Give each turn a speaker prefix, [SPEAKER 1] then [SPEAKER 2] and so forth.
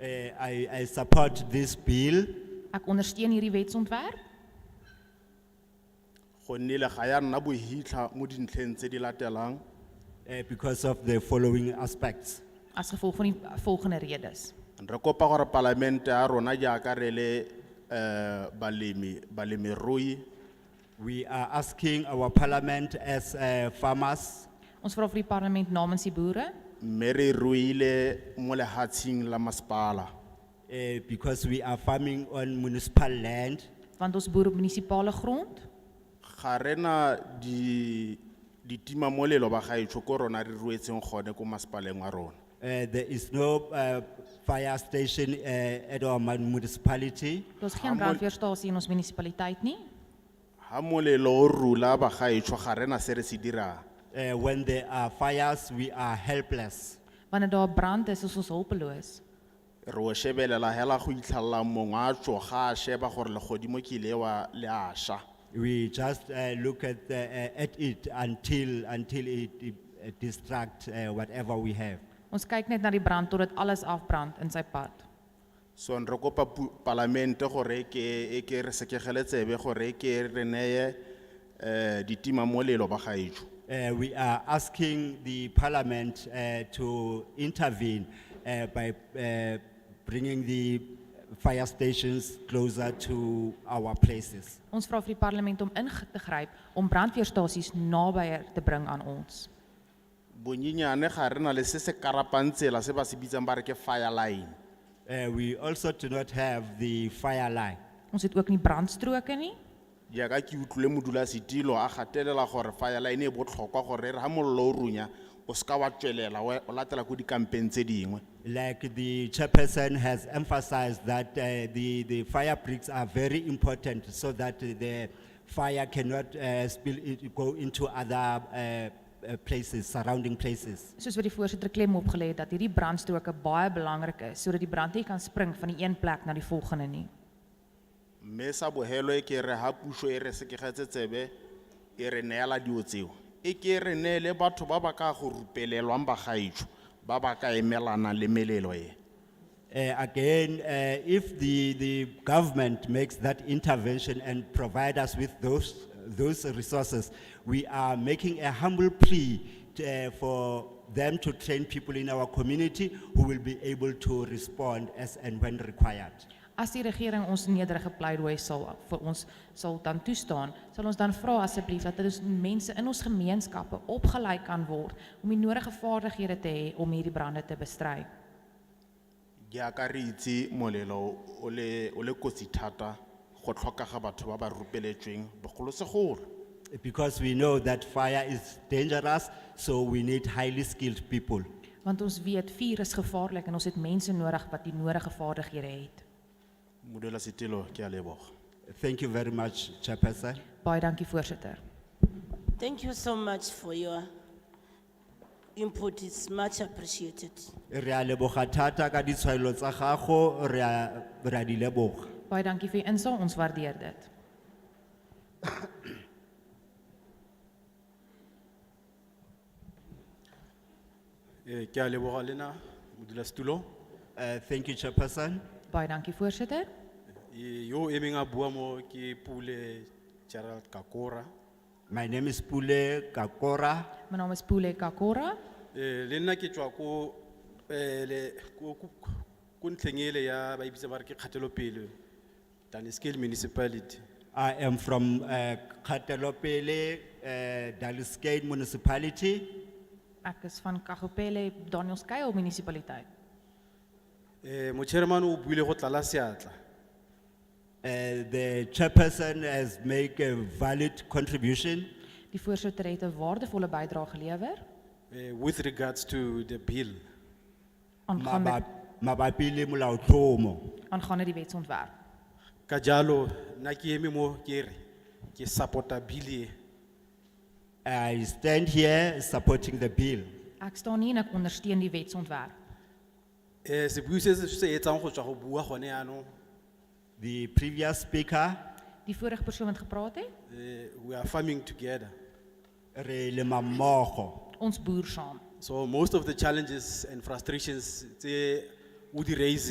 [SPEAKER 1] Eh, I, I support this bill,
[SPEAKER 2] Ek ondersteun hierdie wetsontwerp
[SPEAKER 3] gonne le ga ya nna bohitlha mo dintlheng tse di latelang
[SPEAKER 1] eh, because of the following aspects.
[SPEAKER 2] as gevolg van die volgende redes.
[SPEAKER 3] re kopa gore palamente ya rona jaaka re le um balemi balemirui
[SPEAKER 1] We are asking our parliament as eh, farmers,
[SPEAKER 2] Ons vra vir die parlement namens die boere
[SPEAKER 3] mme re ruile mo lehatsheng la masepala
[SPEAKER 1] eh, because we are farming on municipal land,
[SPEAKER 2] want ons boer op munisipale grond.
[SPEAKER 3] ga rena di- ditimamolelo ba gaetsho ko rona re ruetseng gone ko masepaleng wa rona
[SPEAKER 1] Eh, there is no eh, fire station eh, at our mun- municipality.
[SPEAKER 2] Daar's geen
[SPEAKER 3] Hamel-
[SPEAKER 2] brandweerstasie in ons munisipaliteit nie.
[SPEAKER 3] ga molelo o rula ba gaetsho ga rena se re se dirang
[SPEAKER 1] Eh, When there are fires, we are helpless.
[SPEAKER 2] Wanneer daar 'n brand is, is ons hulpeloos.
[SPEAKER 3] re o shebelela hela go itlhalla mongwe a tswa ga a sheba gore legodimo ke ile wa le a sha
[SPEAKER 1] We just eh, look at, the, eh, at it until, until it eh, distract eh, whatever we have.
[SPEAKER 2] Ons kyk net na die brand totdat alles afbrand in sy pad.
[SPEAKER 3] so re kopa pu- palamente gore e ke e ke re sekegele tsebe gore e ke re neye um ditimamolelo ba gaetsho
[SPEAKER 1] Eh, We are asking the parliament eh, to intervene eh, by eh, bringing the fire stations closer to our places.
[SPEAKER 2] Ons vra vir die parlement om in te gryp om brandweerstasies nabyer te bring aan ons.
[SPEAKER 3] bonyenyane ga re na le se se karapang tsela se ba se bitsang ba re ke fire line
[SPEAKER 1] Eh, We also do not have the fire line.
[SPEAKER 2] Ons het ook nie brandstroke nie.
[SPEAKER 3] jaaka ke utlwile modulasetilo a gatelela gore fire line e botlhokwa gore e re ga mollo o runya o seka wa tswelela o- o latela ko dikampeng tse dingwe
[SPEAKER 1] Like the chairperson has emphasized that eh, the, the fire bricks are very important so that the fire cannot eh, spill, it- go into other eh, eh, places, surrounding places.
[SPEAKER 2] Soos wat die voorsitter klem opgelê het dat hierdie brandstroke baie belangrik is sodat die brand nie kan spring van die een plek na die volgende nie.
[SPEAKER 3] mme sa bogelo e ke re ga puso e re sekegetse tsebe e re neela dio tseo e ke re neele batho ba ba ka go rupelelwang bagaetso ba ba ka emelana le melelo e
[SPEAKER 1] Eh, again, eh, if the, the government makes that intervention and provide us with those, those resources, we are making a humble plea to, eh, for them to train people in our community who will be able to respond as and when required.
[SPEAKER 2] As die regering ons nederige pleidooi sal vir ons sal dan toestaan, sal ons dan vra asseblief dat ons mense in ons gemeenskappe opgelei kan word om die nodige vaardighede te hê om hierdie brande te bestry.
[SPEAKER 3] jaaka re itse molelo o le o le kotsi thata go tlhokega batho ba ba rupeletsweng bogolosegolo
[SPEAKER 1] Because we know that fire is dangerous, so we need highly skilled people.
[SPEAKER 2] Want ons weet vuur is gevaarlik en ons het mense nodig wat die nodige vaardighede het.
[SPEAKER 3] modulasetilo ke a leboga
[SPEAKER 1] Thank you very much, Chairperson.
[SPEAKER 2] Baie dankie voorsitter.
[SPEAKER 4] Thank you so much for your input, it's much appreciated.
[SPEAKER 1] Re a leboga thata ka ditshwaelo tsa gago, re a- re a di leboga.
[SPEAKER 2] Baie dankie vir u insaag, ons waardeer dit.
[SPEAKER 5] Eh, Ke a leboga lena modulasetulo
[SPEAKER 1] Uh, thank you, Chairperson.
[SPEAKER 2] Baie dankie voorsitter.
[SPEAKER 5] Eh, yo e meng a bua mo ke pule gerald kakora
[SPEAKER 1] My name is Pule Kakora.
[SPEAKER 2] My naam is Pule Kakora.
[SPEAKER 5] Eh, le nna ke tswa ko eh, le- ko- ko- ko ntlheng ele ya ba ebitsa ba re ke kgatelopele dunscale municipality
[SPEAKER 1] I am from uh, Katelopele, uh, Daliskein Municipality.
[SPEAKER 2] Ek is van Kagopele, Danielskuil munisipaliteit.
[SPEAKER 5] Eh, mochairman o buile go tlala seatla
[SPEAKER 1] Uh, the chairperson has made a valid contribution
[SPEAKER 2] Die voorsitter het 'n waardevolle bydrae gelewer
[SPEAKER 5] eh, with regards to the bill
[SPEAKER 2] aangaande
[SPEAKER 1] maba- mabapi le molaotlhomo.
[SPEAKER 2] aangaande die wetsontwerp.
[SPEAKER 5] ka jalo nna ke eme mo ke re ke support-a bill e
[SPEAKER 1] I stand here supporting the bill.
[SPEAKER 2] Ek staan nie en ek ondersteun die wetsontwerp.
[SPEAKER 5] Eh, sebui se se se etsang go tswa go bua gone yaanong
[SPEAKER 1] The previous speaker,
[SPEAKER 2] Die vorige persoon wat gepraat het,
[SPEAKER 5] eh, we are farming together.
[SPEAKER 1] re lema mmogo.
[SPEAKER 2] ons boer saam.
[SPEAKER 5] So most of the challenges and frustrations, they would raise